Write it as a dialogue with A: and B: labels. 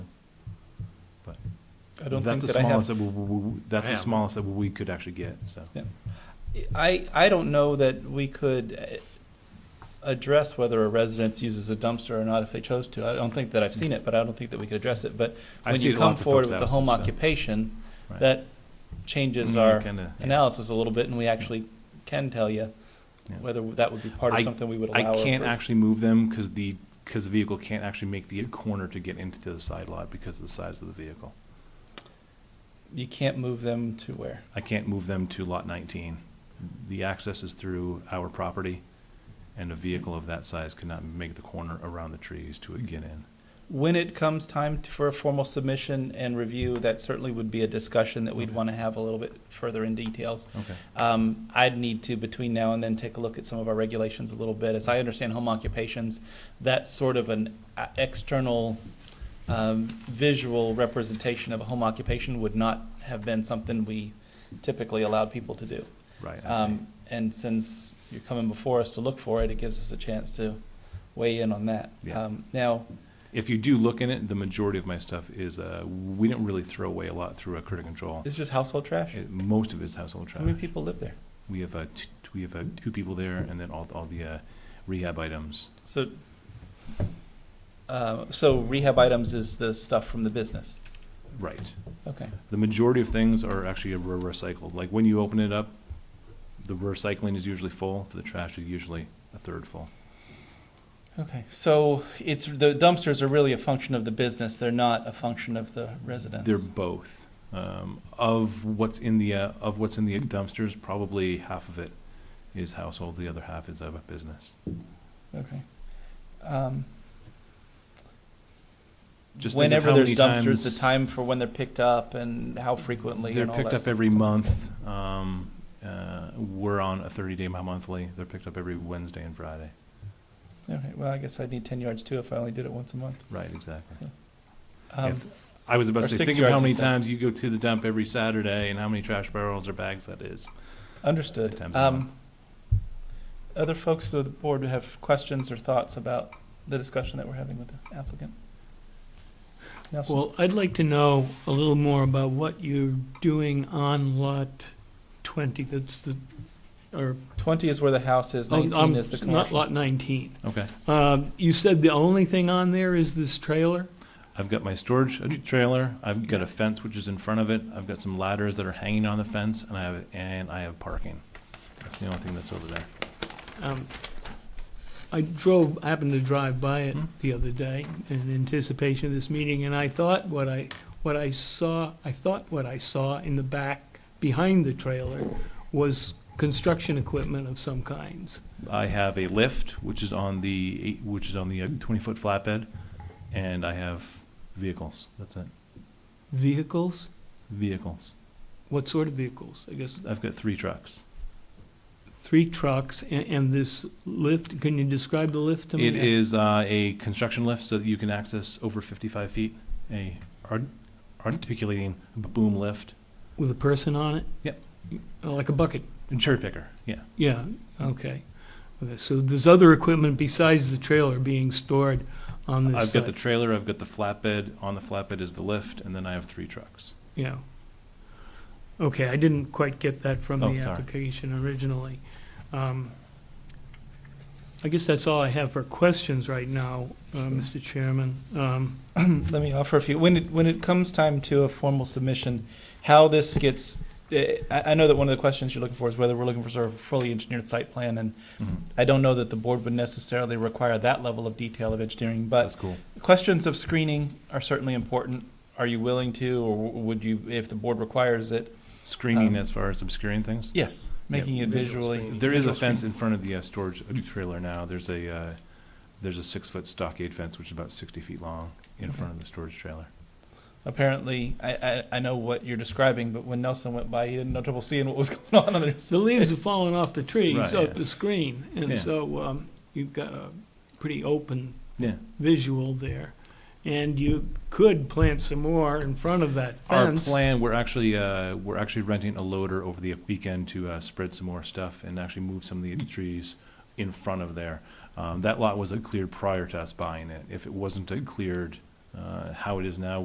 A: I don't
B: That's
A: think
B: the
A: that I have
B: smallest that we- we, we- that's the
C: Yeah.
B: smallest that we could actually get, so.
A: I, I don't know that we could eh, address whether a residence uses a dumpster or not if they chose to. I don't think that I've seen it, but I don't think that we could address it. But
B: I
A: when
B: see it
A: you
B: at
A: come
B: lots of
A: forward
B: folks'
A: with the home
B: houses, so.
A: occupation,
B: Right.
A: that changes
B: Mm,
A: our
B: kinda, yeah.
A: analysis a little bit, and we actually can tell you
B: Yeah.
A: whether that would be part of
B: I-
A: something we would
B: I
A: allow. or
B: can't
A: approve.
B: actually move them because the, because the vehicle can't actually make the corner to get into the side lot because of the size of the vehicle.
A: You can't move them to where?
B: I can't move them to lot nineteen. The access is through our property, and a vehicle of that size could not make the corner around the trees to get in.
A: When it comes time to- for a formal submission and review, that certainly would be a discussion that we'd
B: Okay.
A: want to have a little bit further in details.
B: Okay.
A: Um, I'd need to, between now and then, take a look at some of our regulations a little bit. As I understand home occupations, that's sort of an uh, external um, visual representation of a home occupation would not have been something we typically allowed people to do.
B: Right, I see.
A: Um, And since you're coming before us to look for it, it gives us a chance to weigh in on that.
B: Yeah.
A: Um, Now,
B: If you do look in it, the majority of my stuff is, uh, we don't really throw away a lot through a critter control.
A: it's just household trash?
B: It- Most of it is household
A: How many
B: trash.
A: people live there?
B: We have, uh, t- we have, uh, two people there and then all, all the, uh, rehab items.
A: So, uh, so rehab items is the stuff from the business?
B: Right.
A: Okay.
B: The majority of things are actually re- recycled. Like when you open it up, the recycling is usually full, the trash is usually a third full.
A: Okay, so it's, the dumpsters are really a function of the business, they're not a function of the residents?
B: They're both. Um, of what's in the, uh, of what's in the dumpsters, probably half of it is household, the other half is of a business.
A: Okay. Um,
B: Just think of
A: Whenever
B: how
A: there's
B: many
A: dumpsters, the
B: times-
A: time for when they're picked up and how frequently
B: They're
A: and all
B: picked
A: that
B: up
A: stuff.
B: every month. Um, uh, we're on a thirty-day monthly. They're picked up every Wednesday and Friday.
A: Okay, well, I guess I'd need ten yards too if I only did it once a month.
B: Right, exactly.
A: Um,
B: If- I was about
A: or
B: to say,
A: six
B: think of how
A: yards
B: many
A: instead.
B: times you go to the dump every Saturday and how many trash barrels or bags that is.
A: Understood.
B: Times a
A: Um, other folks of the board who have questions or thoughts about the discussion that we're having with the applicant? Nelson?
D: Well, I'd like to know a little more about what you're doing on lot 20, that's the, or,
A: Twenty is where the house is,
D: oh,
A: nineteen
D: um,
A: is the
D: not
A: commercial.
D: lot 19.
B: Okay.
D: Um, You said the only thing on there is this trailer?
B: I've got my storage trailer. I've got a fence which is in front of it. I've got some ladders that are hanging on the fence and I have, and I have parking. That's the only thing that's over there.
D: Um, I drove, I happened to drive by it
B: Hmm.
D: the other day in anticipation of this meeting, and I thought what I, what I saw, I thought what I saw in the back, behind the trailer, was construction equipment of some kinds.
B: I have a lift, which is on the, eight- which is on the uh, twenty-foot flatbed, and I have vehicles. That's it.
D: Vehicles?
B: Vehicles.
D: What sort of vehicles? I guess
B: I've got three trucks.
D: three trucks and, and this lift. Can you describe the lift to me?
B: It is uh, a construction lift so that you can access over 55 feet, a art- articulating b- boom lift,
D: With a person on it?
B: Yep.
D: Oh, Like a bucket?
B: and cherry picker, yeah.
D: Yeah, okay. Okay, so there's other equipment besides the trailer being stored on this
B: I've got the
D: site.
B: trailer, I've got the flatbed, on the flatbed is the lift, and then I have three trucks.
D: Yeah. Okay, I didn't quite get that from
B: Oh,
D: the
B: sorry.
D: application originally. Um, I guess that's all I have for questions right now, uh, Mr. Chairman. Um,
A: Let me offer a few. When it, when it comes time to a formal submission, how this gets, eh, I, I know that one of the questions you're looking for is whether we're looking for sort of a fully engineered site plan, and
B: Mm-hmm.
A: I don't know that the board would necessarily require that level of detail of engineering, but
B: That's cool.
A: questions of screening are certainly important. Are you willing to, or w- would you, if the board requires it? Um,
B: Screening as far as obscuring things?
A: Yes, making it
C: visual
A: visually.
C: screening.
B: There is a
A: visual
B: fence in front of the uh, storage trailer now. There's a, uh, there's a six-foot stockade fence, which is about 60 feet long, in
A: Okay.
B: front of the storage trailer.
A: Apparently, I, I, I know what you're describing, but when Nelson went by, he had no trouble seeing what was going on on the
D: The leaves have fallen off the trees,
B: Right,
D: off
B: yeah.
D: the screen,
B: Yeah.
D: and so um, you've got a pretty open
B: Yeah.
D: visual there. And you could plant some more in front of that
B: Our
D: fence.
B: plan, we're actually, uh, we're actually renting a loader over the weekend to, uh, spread some more stuff and actually move some of the trees in front of there. Um, that lot was uh, cleared prior to us buying it. If it wasn't uh, cleared, uh, how it is now,